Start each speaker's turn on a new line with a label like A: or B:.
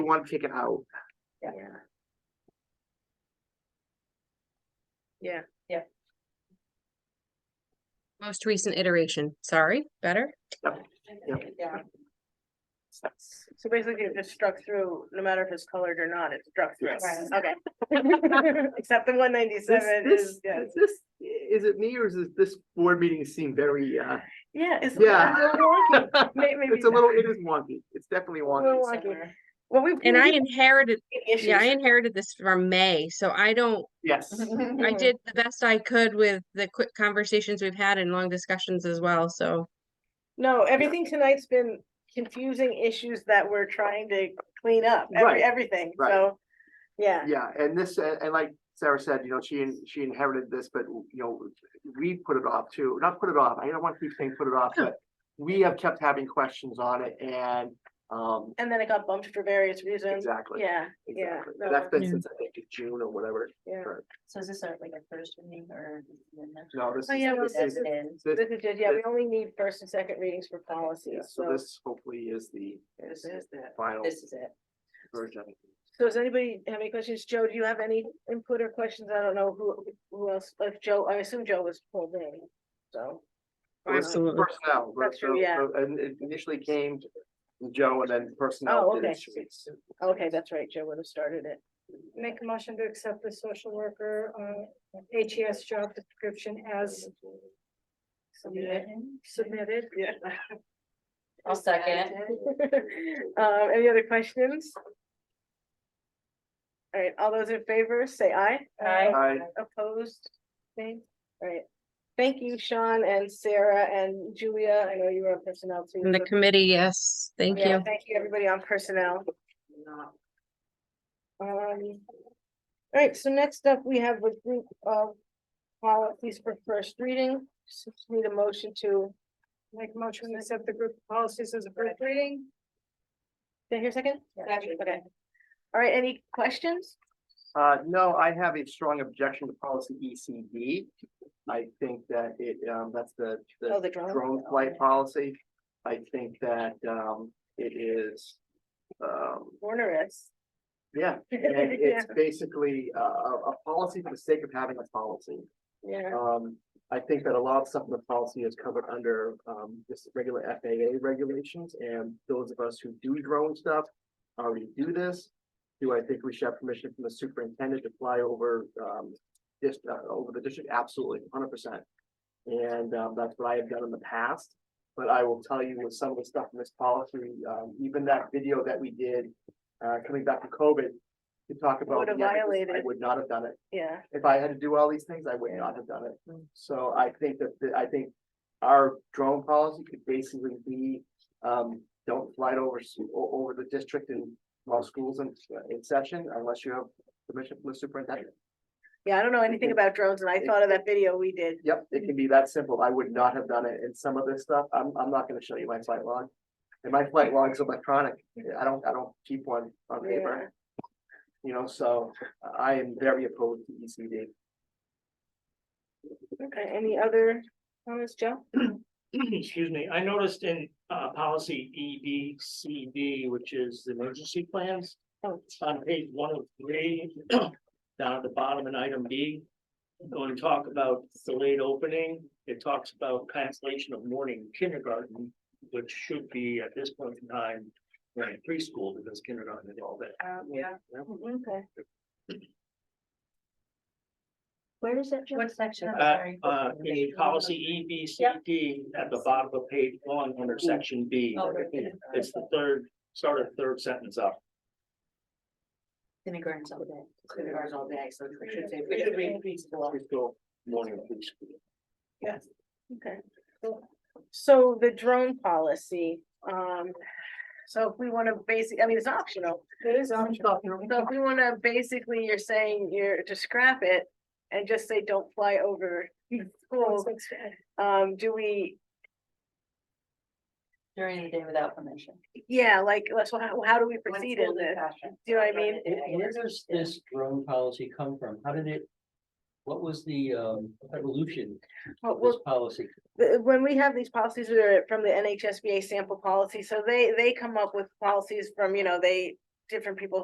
A: want to take it out.
B: Yeah. Yeah.
C: Yeah.
D: Most recent iteration, sorry, better?
C: Yeah.
B: So basically it just struck through, no matter if it's colored or not, it struck through.
A: Yes.
B: Okay. Except the one
A: This,
B: ninety-seven
A: this,
B: is, yeah.
A: is this, is it me or is this- this board meeting seem very, uh,
B: Yeah. it's-
A: Yeah.
B: it's a little wonky. May- maybe
A: it's a little, it is wonky. It's definitely wonky.
B: Little wonky. Well, we've.
D: And I inherited, yeah, I
B: Issues.
D: inherited this from May, so I don't,
A: Yes.
D: I did the best I could with the quick conversations we've had and long discussions as well, so.
B: No, everything tonight's been confusing issues that we're trying to clean up,
A: Right,
B: every, everything,
A: right.
B: so. Yeah,
A: Yeah, and this, uh, and like Sarah said, you know, she, in- she inherited this, but you know, we put it off too, not put it off, I don't want to keep saying put it off, but we have kept having questions on it and, um,
B: and then it got bumped for various reasons.
A: exactly.
B: Yeah, yeah.
A: Exactly.
B: no,
A: That's been
D: Yeah.
A: since I think June or whatever.
B: yeah.
C: So is this our, like a first reading or?
A: No, this
B: Oh, yeah, well,
A: is, this
C: That's
A: is,
C: been,
A: this,
B: This is, just- yeah, we
A: this-
B: only need first and second readings for
A: yeah,
B: policies,
A: so
B: so.
A: this hopefully is the
B: This is the-
A: final
C: this is it.
A: version.
B: So does anybody have any questions? Joe, do you have any input or questions? I don't know who, who else, like Joe, I assume Joe was pulled in, so.
A: Well, this is
D: Absolutely.
A: Personnel.
B: That's true,
A: so-
B: yeah.
A: so- And it initially came to Joe and then personnel.
B: Oh,
A: did it.
B: okay. Okay, that's right, Joe would have started it.
E: Make a motion to accept the social worker, uh, HES job description as submitted.
B: Yeah.
C: I'll second it.
B: Um, any other questions? All right, all those in favor, say aye.
C: Aye.
A: I,
B: Opposed, nay? All right. Thank you, Sean and Sarah and Julia. I know you were on personnel too.
D: And the
B: so-
D: committee, yes, thank
B: Yeah,
D: you.
B: Thank you, everybody on personnel. Um, all right, so next up, we have a group of policies for first reading. Just Need a motion to,
E: Make a motion to accept the group policies as a first reading.
B: did I hear a second?
C: Yeah.
B: Okay. All right, any questions?
A: uh, no, I have a strong objection to policy ECD. I think that it, um, that's the,
B: Oh,
A: the
B: the drone.
A: drone flight policy. I think that, um, it is, um,
B: Onerous.
A: yeah, and
B: Yeah,
A: it's basically a, a, a policy for the sake of having a policy.
B: yeah,
A: Um, I think that a lot of stuff in the policy is covered under, um, just regular FAA regulations, and those of us who do drone stuff already do this. Do I think we should have permission from the superintendent to fly over, um, just, uh, over the district? Absolutely, hundred percent. And, um, that's what I have done in the past, but I will tell you with some of the stuff in this policy, um, even that video that we did, uh, coming back from COVID, to talk about.
B: Would have
A: the ethics, I
B: violated.
A: would not have done it
B: yeah.
A: if I had to do all these things, I would not have done it. So I think that, the- I think our drone policy could basically be, um, don't fly it over, s- o- over the district and while school's in, uh, in session unless you have permission from the superintendent.
B: Yeah, I don't know anything
A: can-
B: about drones and I
A: it-
B: thought of that video we did.
A: Yep, it can be that simple. I would not have done it. And some of this stuff, I'm, I'm not gonna show you my flight log. And my flight log's electronic. I don't, I don't keep one on paper. You know, so I am very opposed to E ECD.
B: Okay, any other comments, Joe?
F: Excuse me, I noticed in uh policy E B C D, which is the emergency plans.
B: Oh.
F: On page one of three, down at the bottom in item B. Going to talk about delayed opening, it talks about cancellation of morning kindergarten, which should be at this point in time. Right, preschool, because kindergarten is all that.
C: yeah.
B: Uh, Okay.
C: Where is that? What section? I'm
F: Uh,
C: sorry.
F: uh, in policy E B C D at the bottom of page one under section B.
C: Oh, right.
F: It's the third, start of third sentence up.
C: Kindergarten's all day. Kindergarten's all day, so we should say.
F: It should be
C: preschool.
F: Preschool, morning preschool.
B: Yes. Okay. cool. So the drone policy, um, so if we want to basic, I mean, it's optional. It is optional. So if we want to, basically, you're saying you're to scrap it and just say, don't fly over schools, um, do we,
C: During the day without permission.
B: yeah, like, let's, how, how do we proceed in this? Do you know what I mean?
G: Where where does this drone policy come from? How did it? What was the um evolution
B: Well,
G: of
B: well,
G: this policy?
B: the- when we have these policies that are from the NHSBA sample policy, so they, they come up with policies from, you know, they different people